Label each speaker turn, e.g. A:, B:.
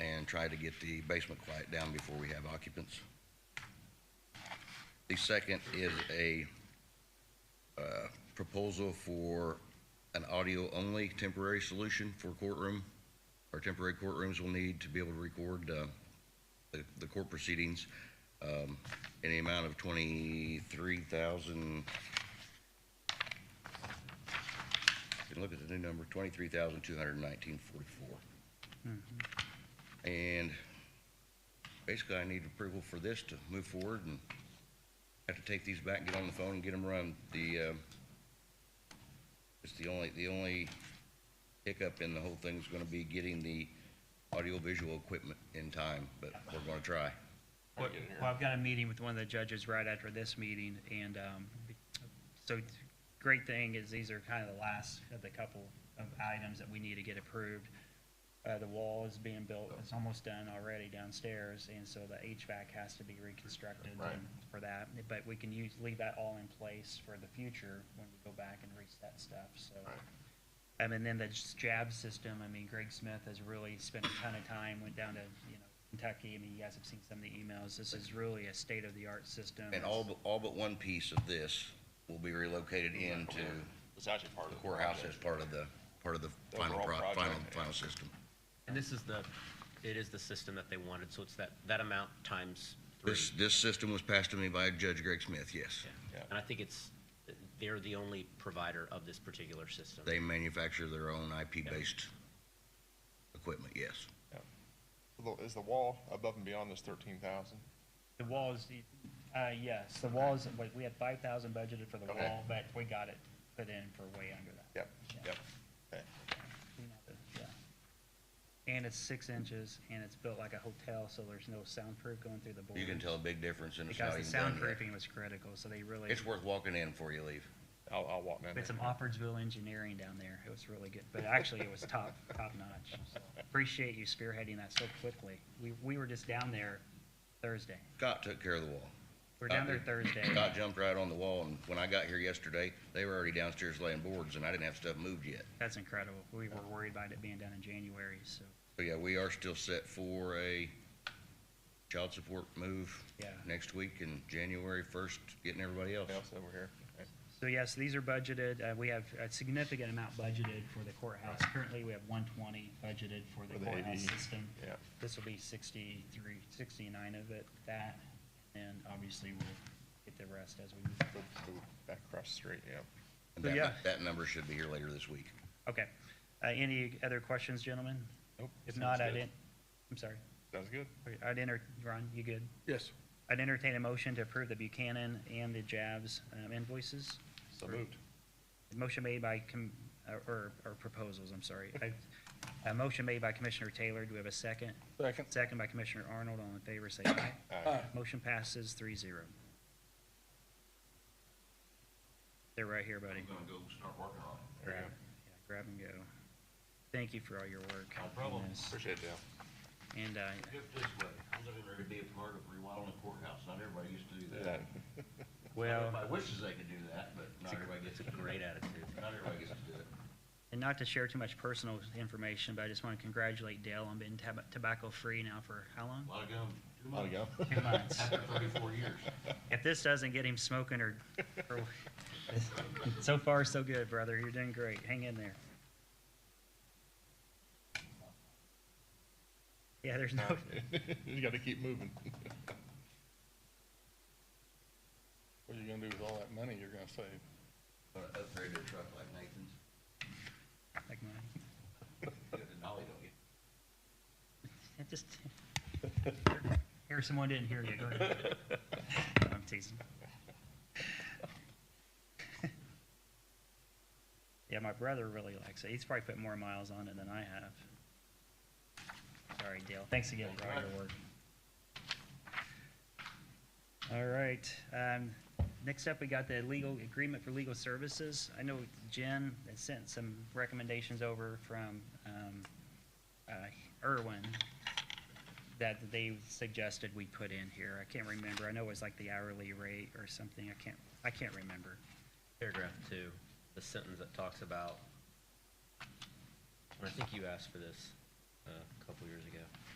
A: and try to get the basement quiet down before we have occupants. The second is a uh, proposal for an audio-only temporary solution for courtroom. Our temporary courtrooms will need to be able to record uh, the the court proceedings um, in the amount of twenty-three thousand, can look at the new number, twenty-three thousand, two hundred and nineteen, forty-four. And basically, I need approval for this to move forward and have to take these back, get on the phone and get them run. The, uh, it's the only, the only hiccup in the whole thing is gonna be getting the audiovisual equipment in time, but we're gonna try.
B: Well, well, I've got a meeting with one of the judges right after this meeting, and um, so great thing is these are kind of the last of the couple of items that we need to get approved. Uh, The wall is being built, it's almost done already downstairs, and so the HVAC has to be reconstructed
C: Right.
B: and for that. But we can use, leave that all in place for the future when we go back and reset stuff, so.
C: Right.
B: Um, and then the s- jab system, I mean, Greg Smith has really spent a ton of time, went down to, you know, Kentucky. I mean, you guys have seen some of the emails. This is really a state-of-the-art system.
A: And all, but all but one piece of this will be relocated into
C: It's actually part
A: the
C: of the
A: courthouse as
C: project.
A: part of the, part of the final,
C: Overall
A: pro-
C: project,
A: final,
C: yeah.
A: final system.
D: And this is the, it is the system that they wanted, so it's that, that amount times three.
A: This, this system was passed to me by Judge Greg Smith, yes.
D: Yeah.
C: Yeah.
D: And I think it's, they're the only provider of this particular system.
A: They manufacture their own IP-based equipment, yes.
E: Well, Is the wall above and beyond this thirteen thousand?
B: The walls, uh, yes, the walls, like, we had five thousand budgeted for the
E: Okay.
B: wall, but we got it put in for way under that.
E: Yep, yep. Okay.
B: We know that, yeah. And it's six inches, and it's built like a hotel, so there's no soundproof going through the board.
A: You can tell a big difference in the
B: Because
A: style
B: the
A: you've done here.
B: soundproofing was critical, so they really.
A: It's worth walking in before you leave.
E: I'll, I'll walk down
B: We had
E: there.
B: some Offordsville engineering down there. It was really good, but actually it was top, top notch. So Appreciate you spearheading that so quickly. We, we were just down there Thursday.
A: Scott took care of the wall.
B: We were down there Thursday.
A: Scott jumped right on the wall, and when I got here yesterday, they were already downstairs laying boards, and I didn't have stuff moved yet.
B: That's incredible. We were worried about it being done in January, so,
A: But yeah, we are still set for a child support move
B: yeah.
A: next week and January first, getting everybody else.
E: Anything else over here? Okay.
B: So yes, these are budgeted. Uh, we have a significant amount budgeted for the courthouse. Currently, we have one twenty budgeted for the
E: For the
B: courthouse
E: AD.
B: system.
E: Yeah.
B: This will be 63, 69 of it, that, and obviously we'll get the rest as we move.
E: Go- go Back across the street, yeah.
A: And
B: So,
A: that,
B: yeah.
A: that number should be here later this week.
B: Okay. Uh, Any other questions, gentlemen?
E: Nope.
B: If
E: sounds
B: not, I'd,
E: good.
B: en- I'm sorry.
E: Sounds good.
B: Okay, I'd enter, Ron, you good?
F: Yes.
B: I'd entertain a motion to approve the Buchanan and the Jabs um, invoices.
E: So moved.
B: Motion made by, com- uh, or, or proposals, I'm sorry. I- A motion made by Commissioner Taylor. Do we have a second?
F: Second.
B: Second by Commissioner Arnold. All in favor, say aye.
E: Aye.
B: Motion passes three zero. They're right here, buddy.
C: gonna go start working on it.
E: There you go.
B: Yeah, Grab and go. Thank you for all your work.
C: No problem.
B: on this.
E: Appreciate it, Dale.
B: And, uh,
C: Put it this way, I'm looking there to be a part of rewiring the courthouse, not everybody used to do that.
E: Yeah.
B: Well,
C: Everybody wishes they could do that, but not everybody gets
D: It's
C: to
D: a
C: do it.
D: great attitude.
C: Not everybody gets to do it.
B: and not to share too much personal information, but I just want to congratulate Dale on being tab- tobacco-free now for how long?
C: A lot of gum, too
E: There you
C: much,
E: go.
B: Two months.
C: after thirty-four years.
B: If this doesn't get him smoking or, or- so far, so good, brother. You're doing great. Hang in there. Yeah, there's no,
E: Uh, You gotta keep moving.
F: What are you gonna do with all that money you're gonna save?
A: Gonna upgrade their truck like Nathan's.
B: like mine.
C: Get the dolly, don't get-
B: It just, here, someone didn't hear you. Go ahead. I'm teasing. Yeah, my brother really likes it. He's probably put more miles on it than I have. Sorry, Dale. Thanks again for all your work. All right, um, next up, we got the legal agreement for legal services. I know Jen had sent some recommendations over from, um, uh, Irwin that they suggested we put in here. I can't remember. I know it was like the hourly rate or something. I can't, I can't remember.
D: Paragraph two, the sentence that talks about, and I think you asked for this uh, a couple years ago.